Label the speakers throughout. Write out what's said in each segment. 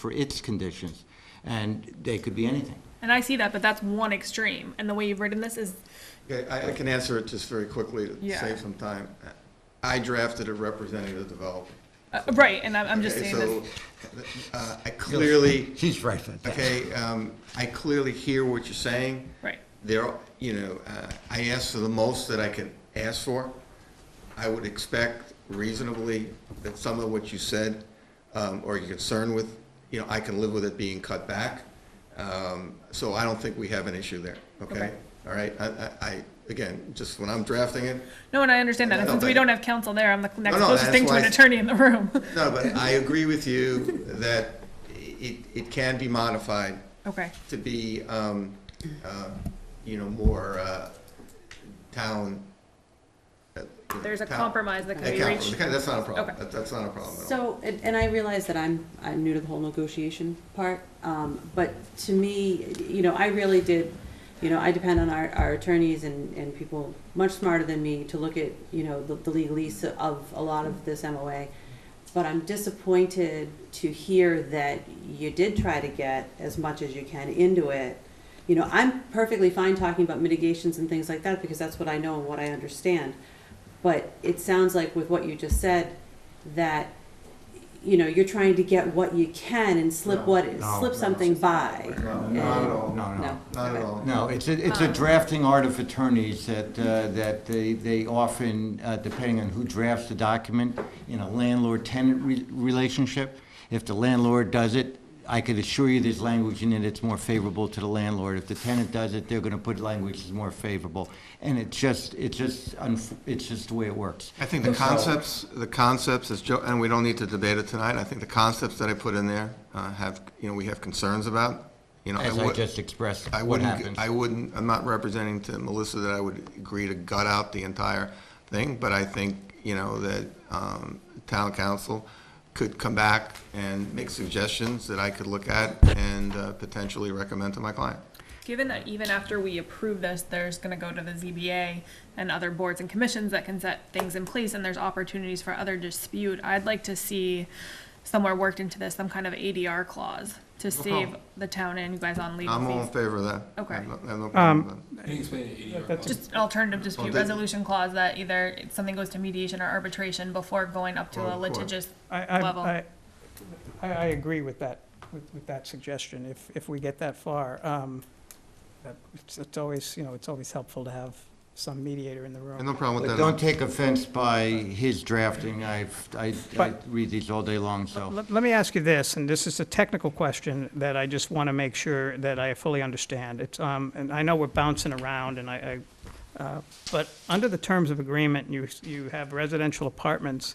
Speaker 1: for its conditions, and they could be anything.
Speaker 2: And I see that, but that's one extreme. And the way you've written this is
Speaker 3: Okay, I, I can answer it just very quickly to
Speaker 2: Yeah.
Speaker 3: save some time. I drafted a representative developer.
Speaker 2: uh, right. And I'm, I'm just
Speaker 3: Okay,
Speaker 2: saying
Speaker 3: so,
Speaker 2: this.
Speaker 3: uh, I clearly,
Speaker 1: She's right about that.
Speaker 3: okay, um, I clearly hear what you're saying.
Speaker 2: Right.
Speaker 3: There, you know, uh, I asked for the most that I could ask for. I would expect reasonably that some of what you said, um, or your concern with, you know, I can live with it being cut back. Um, so I don't think we have an issue there, okay?
Speaker 2: Okay.
Speaker 3: All right, I, I, I, again, just when I'm drafting it,
Speaker 2: No, and I understand that. And
Speaker 3: No,
Speaker 2: since
Speaker 3: but-
Speaker 2: we don't have counsel there, I'm the next
Speaker 3: no,
Speaker 2: closest
Speaker 3: that's
Speaker 2: thing to
Speaker 3: why
Speaker 2: an
Speaker 3: I-
Speaker 2: attorney in the room.
Speaker 3: No, but I agree with you that it, it can be modified
Speaker 2: okay.
Speaker 3: to be, um, uh, you know, more, uh, town. uh, you know,
Speaker 2: There's a
Speaker 3: town-
Speaker 2: compromise that can
Speaker 3: Yeah,
Speaker 2: be
Speaker 3: compromise.
Speaker 2: reached.
Speaker 3: Okay, That's not a problem.
Speaker 2: Okay.
Speaker 3: That- That's not a problem at all.
Speaker 4: So, and, and I realize that I'm, I'm new to the whole negotiation part, um, but to me, you know, I really did, you know, I depend on our, our attorneys and, and people much smarter than me to look at, you know, the, the legalese of a lot of this MOA. But I'm disappointed to hear that you did try to get as much as you can into it. You know, I'm perfectly fine talking about mitigations and things like that because that's what I know and what I understand. But it sounds like with what you just said, that, you know, you're trying to get what you can and slip what,
Speaker 1: No,
Speaker 4: slip
Speaker 1: no.
Speaker 4: something by.
Speaker 3: No, Not at all.
Speaker 1: No, no.
Speaker 3: Not at all.
Speaker 1: No, it's a, it's a drafting art of attorneys that, uh, that they, they often, uh, depending on who drafts the document, in a landlord-tenant re- relationship, if the landlord does it, I could assure you there's language in it that's more favorable to the landlord. If the tenant does it, they're gonna put language that's more favorable. And it's just, it's just, unf- it's just the way it works.
Speaker 3: I think the concepts, the concepts, as Joe, and we don't need to debate it tonight, I think the concepts that I put in there uh, have, you know, we have concerns about, you know.
Speaker 1: As I
Speaker 3: would-
Speaker 1: just expressed
Speaker 3: I
Speaker 1: what
Speaker 3: wouldn't,
Speaker 1: happens.
Speaker 3: I wouldn't, I'm not representing to Melissa that I would agree to gut out the entire thing, but I think, you know, that um, town council could come back and make suggestions that I could look at and uh, potentially recommend to my client.
Speaker 2: Given that even after we approve this, there's going to go to the ZBA and other boards and commissions that can set things in place, and there's opportunities for other dispute. I'd like to see somewhere worked into this some kind of ADR clause to save the town and you guys on legal
Speaker 3: I'm all in
Speaker 2: fees.
Speaker 3: favor of that.
Speaker 2: Okay.
Speaker 3: I have no- I have no problem with that.
Speaker 2: Just an alternative dispute
Speaker 3: that-
Speaker 2: resolution clause that either it's- something goes to mediation or arbitration before going up to
Speaker 3: Or
Speaker 2: a
Speaker 3: court.
Speaker 2: litigious
Speaker 5: I, I,
Speaker 2: level.
Speaker 5: I, I I agree with that, with, with that suggestion, if, if we get that far. Um, that- it's, it's always, you know, it's always helpful to have some mediator in the
Speaker 3: I
Speaker 5: room.
Speaker 3: have no problem
Speaker 1: But
Speaker 3: with
Speaker 1: don't
Speaker 3: that.
Speaker 1: take offense by his drafting. I've, I, I
Speaker 5: But-
Speaker 1: read these all day long, so.
Speaker 5: Let, let me ask you this, and this is a technical question that I just want to make sure that I fully understand. It's, um, and I know we're bouncing around, and I, I, uh, but under the terms of agreement, you, you have residential apartments.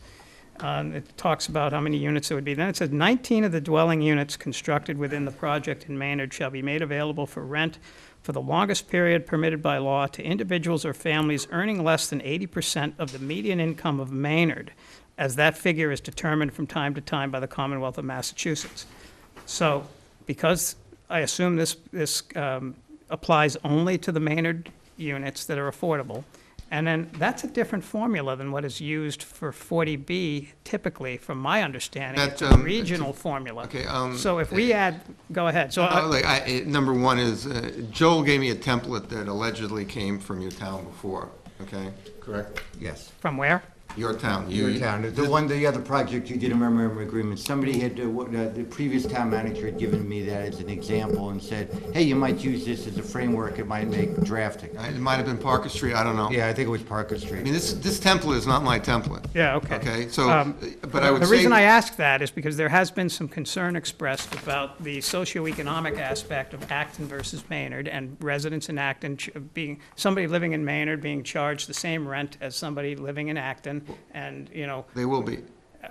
Speaker 5: Um, it talks about how many units it would be. Then it says nineteen of the dwelling units constructed within the project in Maynard shall be made available for rent for the longest period permitted by law to individuals or families earning less than eighty percent of the median income of Maynard as that figure is determined from time to time by the Commonwealth of Massachusetts. So, because I assume this, this um, applies only to the Maynard units that are affordable, and then that's a different formula than what is used for 40B typically, from my understanding.
Speaker 3: That,
Speaker 5: It's a
Speaker 3: um,
Speaker 5: regional formula.
Speaker 3: Okay, um,
Speaker 5: So if we add, go ahead, so,
Speaker 3: Uh,
Speaker 5: I-
Speaker 3: Like, I, it- number one is, uh, Joel gave me a template that allegedly came from your town before, okay? Correct.
Speaker 1: Yes.
Speaker 5: from where?
Speaker 3: Your town. you-
Speaker 1: Your town, the one, the other project you did a memorandum agreement, somebody had, uh, what, uh, the previous town manager had given me that as an example and said, hey, you might use this as a framework, it might make drafting.
Speaker 3: It might have been Parker Street, I don't know.
Speaker 1: Yeah, I think it was Parker
Speaker 3: I mean,
Speaker 1: Street.
Speaker 3: this, this template is not my template.
Speaker 5: Yeah, okay.
Speaker 3: Okay, so,
Speaker 5: Um,
Speaker 3: but I would
Speaker 5: The reason I
Speaker 3: say,
Speaker 5: ask that is because there has been some concern expressed about the socioeconomic aspect of Acton versus Maynard, and residents in Acton ch- being, somebody living in Maynard being charged the same rent as somebody living in Acton, and, you know,
Speaker 3: they will be.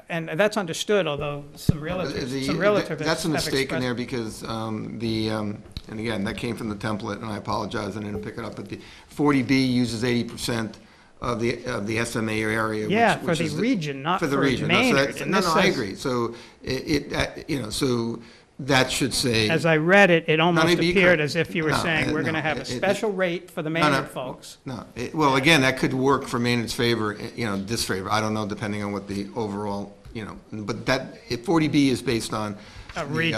Speaker 5: and that's understood, although some relatives,
Speaker 3: The-
Speaker 5: some relatives
Speaker 3: That's a
Speaker 5: have
Speaker 3: mistake in
Speaker 5: expressed-
Speaker 3: there because um, the, um, and again, that came from the template, and I apologize, I didn't pick it up, but the 40B uses 80% of the, of the SMA area. which-
Speaker 5: Yeah, for
Speaker 3: which
Speaker 5: the
Speaker 3: is
Speaker 5: region, not
Speaker 3: For the
Speaker 5: for
Speaker 3: region. No, so
Speaker 5: Maynard,
Speaker 3: that's-
Speaker 5: and
Speaker 3: No,
Speaker 5: this
Speaker 3: no, I
Speaker 5: says-
Speaker 3: agree. So it, it, uh, you know, so that should say.
Speaker 5: As I read it, it almost
Speaker 3: it'd be
Speaker 5: appeared
Speaker 3: correct.
Speaker 5: as if you were
Speaker 3: No,
Speaker 5: saying,
Speaker 3: uh,
Speaker 5: we're
Speaker 3: no,
Speaker 5: gonna have
Speaker 3: it-
Speaker 5: a
Speaker 3: it- it-
Speaker 5: special rate for the
Speaker 3: No, no.
Speaker 5: Maynard folks.
Speaker 3: No, It- well, again, that could work for Maynard's favor, eh, you know, disfavor, I don't know, depending on what the overall, you know, but that, if 40B is based on.
Speaker 5: A
Speaker 3: the,
Speaker 5: region.